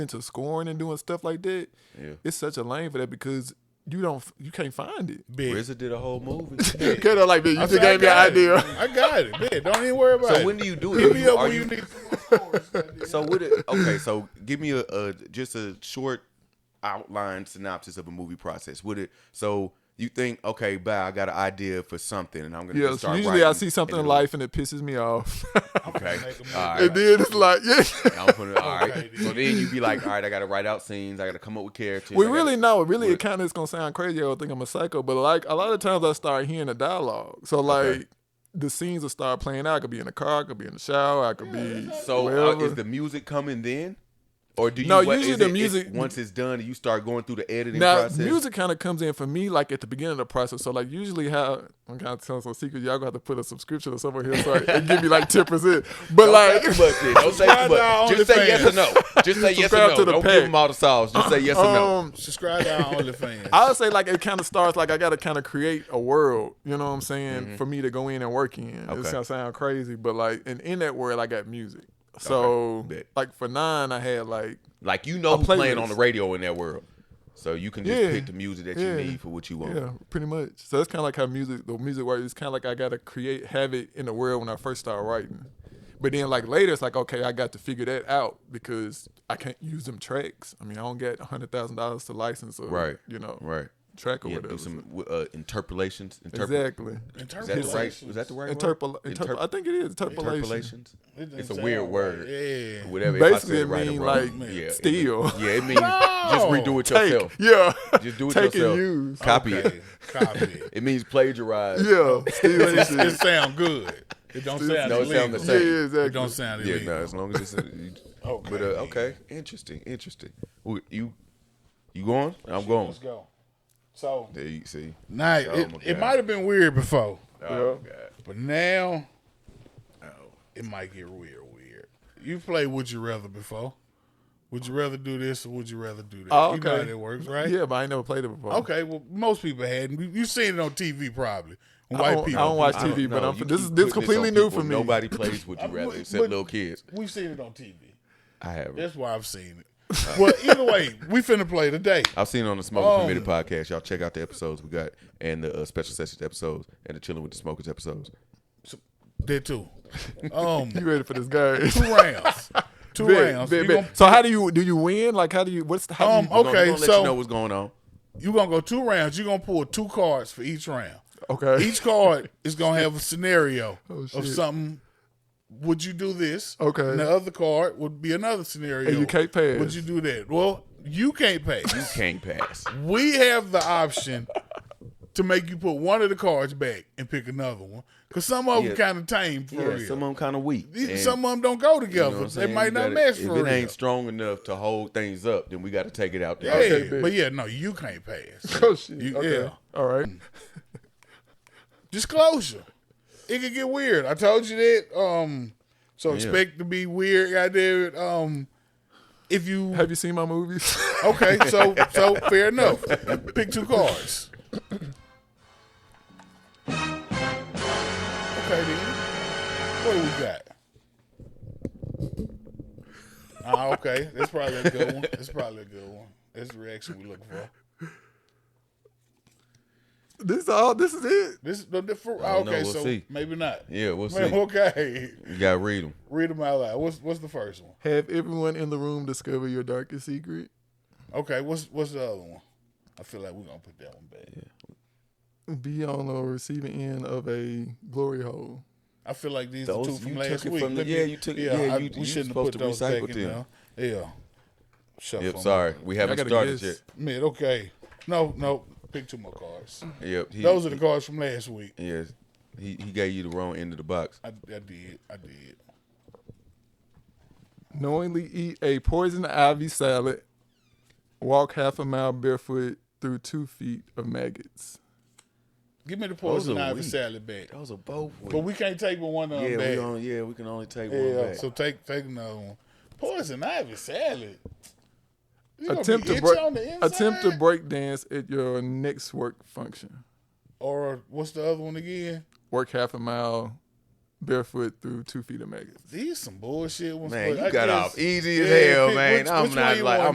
into scoring and doing stuff like that, Yeah. it's such a lane for that because you don't you can't find it. Big. RZA did a whole movie. Cut out like that. You I just said, I gave me an got it. idea. I got it. Big. Don't even worry about it. so when do you do it? Hit me up Are when you you- need. So what? it- Okay, so give me a, a just a short outline synopsis of a movie process. Would it? So you think, okay, bye, I got an idea for something, and I'm gonna Yeah, just start. usually I writing, see something and in it'll- life and it pisses me off. Okay, make a all and right. then it's like, yeah. I'm putting, all right. Okay. So then you be like, all right, I gotta write out scenes. I gotta come up with characters. We I gotta- really know. Really, it kind of is gonna sound crazy. I would think I'm a psycho, but like a lot of times I start hearing the dialogue. So like the scenes will start playing out. I could be in the car. I could be in the shower. I could be So uh, wherever. is the music coming then, or do you? No, wait- usually is the it- it- music- once it's done, you start going through the editing now process. music kind of comes in for me like at the beginning of the process. So like usually how I'm kind of telling some secrets. Y'all gonna have to put a subscription or something here so it give me like ten percent. But Don't say like too much then. Don't say too Subscribe to our much. Just say yes or no. Just say yes or Subscribe no. to the Don't pack. give them all the sauce. Just say yes or no. um, Subscribe to our OnlyFans. I would say like it kind of starts like I got to kind of create a world, you know what I'm saying, for me to go in and work in. It's Mm-hmm. Okay. gonna sound crazy, but like and in that world I got music. So Bet. like for nine I had like Like you know who's playlist. playing on the radio in that world, so you can just Yeah. pick the music that Yeah. you need for what you want. yeah pretty much. So that's kind of like how music the music works. It's kind of like I got to create have it in the world when I first start writing. But then like later it's like okay I got to figure that out because I can't use them tracks. I mean I don't get hundred thousand dollars to license a Right. you know Right. track or Yeah, whatever. do some w- uh, interpolations. Interpol- exactly. Is that the right? Is that the right word? Interpol- Interp- interpol- I think it is interpolation. interpolations. It didn't It's a sound weird right. word. Yeah. Whatever. Basically, if I said it right or mean, wrong. like, yeah, it steal. mean- yeah, it means just redo it Take, yourself. yeah. Just do it Take yourself. and use. Copy Okay, it. Copy it. It means plagiarize. Yeah, steal But and it's, shit. it sound good. It don't sound No, it illegal. sound the Yeah, same. yeah, It exactly. don't sound Yeah, illegal. no. As long as it's you- Okay. But uh, okay, interesting, interesting. Wh- You, you going? I'm going. Let's go. So There you see. now it, Oh my it God. might have been weird before, Oh, God. but now Oh. it might get weird. Weird. You played Would You Rather before? Would you rather do this or would you rather do that? Oh, You know how okay. that works, right? Yeah, but I ain't never played it before. Okay. Well, most people hadn't. You- You seen it on TV probably. When I white don't- I people. don't watch I don't TV, but know. I'm, You this keep is putting this on completely new people. for me. Nobody plays Would You Rather except but- little kids. We've seen it on TV. I haven't. That's why I've seen it. well, either way, we finna play today. I've seen it on the Smoking Um, Permitted podcast. Y'all check out the episodes we got and the uh, special sessions episodes and the Chilling with the Smokers episodes. Did too. Um, You ready for this game? two rounds. Two Bet, rounds. bet, you, bet. Gonna, So how do you do you win? Like how do you what's the how Um, do you, We're gonna- Okay, we're gonna let so- you know what's going on. you gonna go two rounds. You're gonna pull two cards for each round. Okay. Oh, Each card is gonna have a scenario shit. of something. Would you do this? Okay. And the other card would be another scenario. And you can't pass. Would you do that? Well, you can't pass. You can't pass. we have the option to make you put one of the cards back and pick another one. Cause some of them Yeah. kind of tame for Yeah, real. some of them kind of weak. These- And some of them don't go you know together. what I'm they saying? You might not gotta- match If for it real. ain't strong enough to hold things up, then we got to take it out Yeah, there. bitch. but yeah, no, you can't pass. Oh, shit. You- okay. yeah. All right. Disclosure. It could get weird. I told you that. Um, so expect to be weird, goddamn it. Um, if you Have you seen my movies? okay, so so fair enough. Pick two cards. Okay, then. What do we got? Ah, okay. That's probably a good one. That's probably a good one. That's the reaction we looking for. this all this is it. This the different. I don't know. okay, We'll so see. maybe not. Yeah, we'll Man, see. okay. You got to read them. Read them out loud. What's what's the first one? Have everyone in the room discover your darkest secret. Okay, what's what's the other one? I feel like we're gonna put that one back. Be on the receiving end of a glory hole. I feel like these Those- are two from you last took it week. from the- Let me- yeah, you took- yeah, you- we you shouldn't supposed have put to those back recycle in them. there. Yeah. Shuffle Yep, them. sorry. We haven't gotta started guess. Mid, okay. No, no. Pick two more cards. yet. Yep. he- Those are the cards from last week. Yes. He, he gave you the wrong end of the box. I, I did. I did. knowingly eat a poison ivy salad, walk half a mile barefoot through two feet of maggots. Give me the poison are ivy weak. salad back. Those are both. But we can't take but one of them yeah, back. we on, yeah, we can only take one Yeah, back. so take take another one. Poison ivy salad. You gonna Attempt be to itchy break on the attempt to inside? break dance at your next work function. Or what's the other one again? Work half a mile barefoot through two feet of maggots. These some bullshit ones. Man, but you I got guess- off easy as Yeah, hell, pick- man. which- I'm which one not you like want? I'm